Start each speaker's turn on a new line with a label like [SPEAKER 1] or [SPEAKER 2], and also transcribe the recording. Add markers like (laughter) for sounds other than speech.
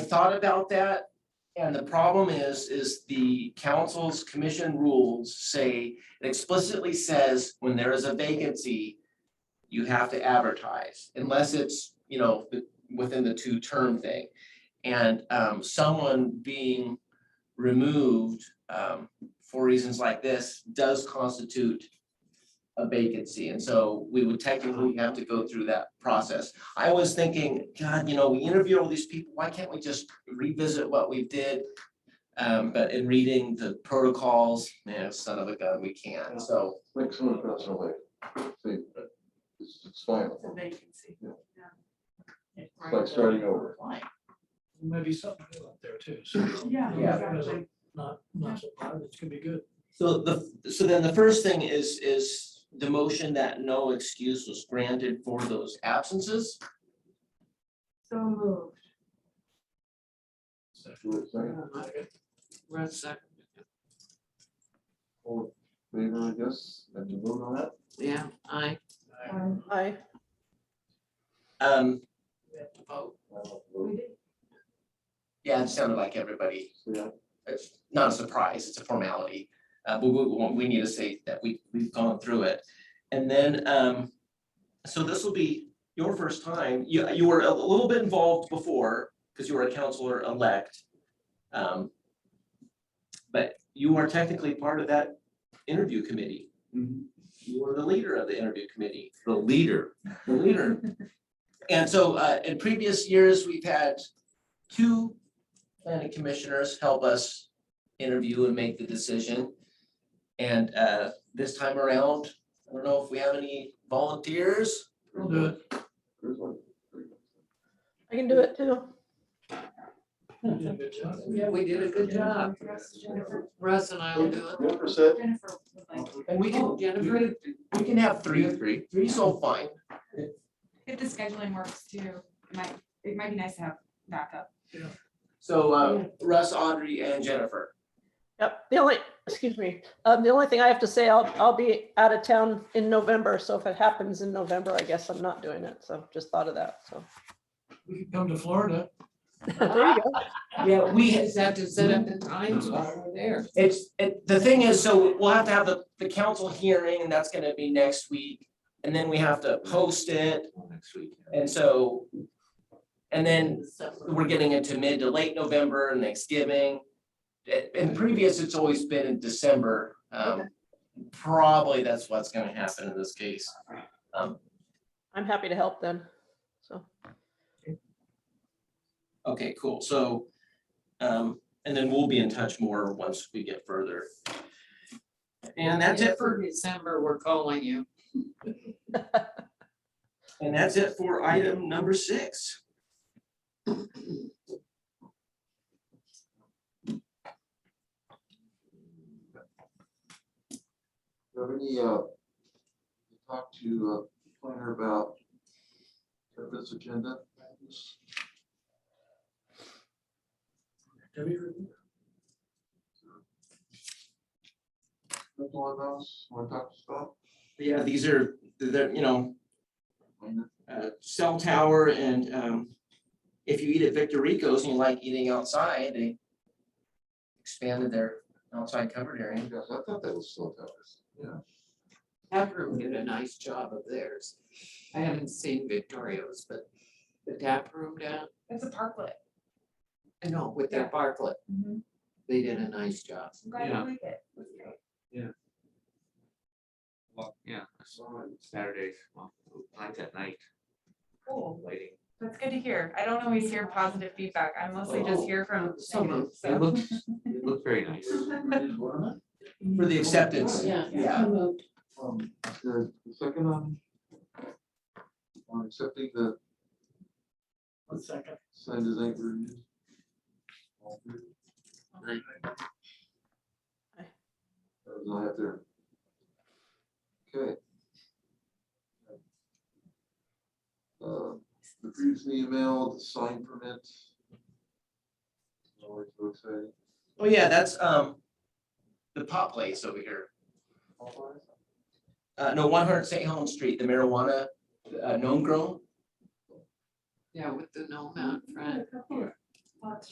[SPEAKER 1] I thought about that, and the problem is, is the council's commission rules say, it explicitly says, when there is a vacancy, you have to advertise, unless it's, you know, th- within the two-term thing. And um, someone being removed um, for reasons like this does constitute a vacancy, and so we would technically have to go through that process. I was thinking, God, you know, we interviewed all these people, why can't we just revisit what we did? Um, but in reading the protocols, man, son of a gun, we can't, so,
[SPEAKER 2] Like someone across our way, see, it's, it's fine,
[SPEAKER 3] It's a vacancy.
[SPEAKER 2] Yeah.
[SPEAKER 3] Yeah.
[SPEAKER 2] it's like starting over.
[SPEAKER 4] Maybe something new up there too, so.
[SPEAKER 3] Yeah,
[SPEAKER 1] Yeah.
[SPEAKER 3] exactly.
[SPEAKER 4] Not, not so bad, it's gonna be good.
[SPEAKER 1] so the, so then the first thing is, is the motion that no excuse was granted for those absences.
[SPEAKER 3] So moved.
[SPEAKER 2] Wait a second,
[SPEAKER 4] Red second.
[SPEAKER 2] all in favor, I guess, and you vote on that?
[SPEAKER 5] Yeah, I,
[SPEAKER 3] Um,
[SPEAKER 6] Aye.
[SPEAKER 1] Um,
[SPEAKER 4] We have to vote.
[SPEAKER 2] I'll
[SPEAKER 3] we
[SPEAKER 2] vote,
[SPEAKER 3] did-
[SPEAKER 1] yeah, it sounded like everybody,
[SPEAKER 2] so yeah.
[SPEAKER 1] it's not a surprise, it's a formality. Uh, but we, we- we need to say that we, we've gone through it. And then, um, so this will be your first time, you, you were a little bit involved before, because you were a counselor elect. Um, But you are technically part of that interview committee. You were the leader of the interview committee,
[SPEAKER 7] Mm-hmm. the leader.
[SPEAKER 1] the leader.
[SPEAKER 7] (laughs)
[SPEAKER 1] And so, uh, in previous years, we've had two planning commissioners help us interview and make the decision. And, uh, this time around, I don't know if we have any volunteers.
[SPEAKER 4] We'll do it.
[SPEAKER 2] There's one.
[SPEAKER 6] I can do it too.
[SPEAKER 4] You did a good job.
[SPEAKER 3] Yeah,
[SPEAKER 5] we did a good job.
[SPEAKER 3] Yes, Jennifer,
[SPEAKER 5] Russ and I will do it.
[SPEAKER 2] Jennifer said,
[SPEAKER 3] Jennifer would like to.
[SPEAKER 1] And we can,
[SPEAKER 5] Oh, Jennifer,
[SPEAKER 1] we can have three, three, three's all fine.
[SPEAKER 8] if the scheduling works too, it might, it might be nice to have backup.
[SPEAKER 1] So, um, Russ, Audrey and Jennifer.
[SPEAKER 6] Yep, the only, excuse me, um, the only thing I have to say, I'll, I'll be out of town in November, so if it happens in November, I guess I'm not doing it, so just thought of that, so.
[SPEAKER 4] We could come to Florida.
[SPEAKER 6] There you go.
[SPEAKER 1] Yeah,
[SPEAKER 5] we just have to set up the times while we're there.
[SPEAKER 1] It's, it, the thing is, so we'll have to have the, the council hearing and that's gonna be next week. And then we have to post it
[SPEAKER 7] Next week.
[SPEAKER 1] and so. And then
[SPEAKER 5] December.
[SPEAKER 1] we're getting into mid to late November and Thanksgiving. I- In previous, it's always been in December. Um, probably that's what's gonna happen in this case. Um,
[SPEAKER 6] I'm happy to help then, so.
[SPEAKER 1] Okay, cool. So, um, and then we'll be in touch more once we get further. And that's it for,
[SPEAKER 5] December, we're calling you.
[SPEAKER 1] and that's it for item number six.
[SPEAKER 2] do you have any, uh, you talked to, uh, planner about this agenda?
[SPEAKER 4] Have you reviewed
[SPEAKER 2] That's all of those, want to talk to Scott?
[SPEAKER 1] Yeah, these are, they're, you know, uh, cell tower and, um, if you eat at Victor Rico's and you like eating outside, they expanded their outside covered area.
[SPEAKER 2] Yes, I thought that was still covered, yeah.
[SPEAKER 5] Tap room did a nice job of theirs. I haven't seen Victorio's, but the tap room down,
[SPEAKER 8] It's a parklet.
[SPEAKER 5] I know, with their Bartlett,
[SPEAKER 8] I'm
[SPEAKER 5] they did a nice job.
[SPEAKER 8] glad you
[SPEAKER 7] Yeah.
[SPEAKER 8] like it. It's great.
[SPEAKER 7] Well, yeah, Saturdays, well, night at night,
[SPEAKER 8] Cool.
[SPEAKER 7] waiting.
[SPEAKER 8] That's good to hear. I don't always hear positive feedback. I mostly just hear from.
[SPEAKER 5] So
[SPEAKER 8] negative,
[SPEAKER 5] moved.
[SPEAKER 8] so.
[SPEAKER 7] Oh. It
[SPEAKER 8] (laughs)
[SPEAKER 7] looks, it looked very nice.
[SPEAKER 1] For the acceptance. Yeah.
[SPEAKER 2] Um, the the second on. On accepting the
[SPEAKER 4] One second.
[SPEAKER 2] sign design review. All good.
[SPEAKER 7] Aye.
[SPEAKER 6] Aye.
[SPEAKER 2] That was all I have there. Okay. Uh, the previously emailed sign permit. Always so exciting.
[SPEAKER 1] Oh, yeah, that's, um, the pop place over here. Uh, no, one hundred St. Helens Street, the marijuana, uh, known grown.
[SPEAKER 5] Yeah, with the gnome out front.
[SPEAKER 8] Lots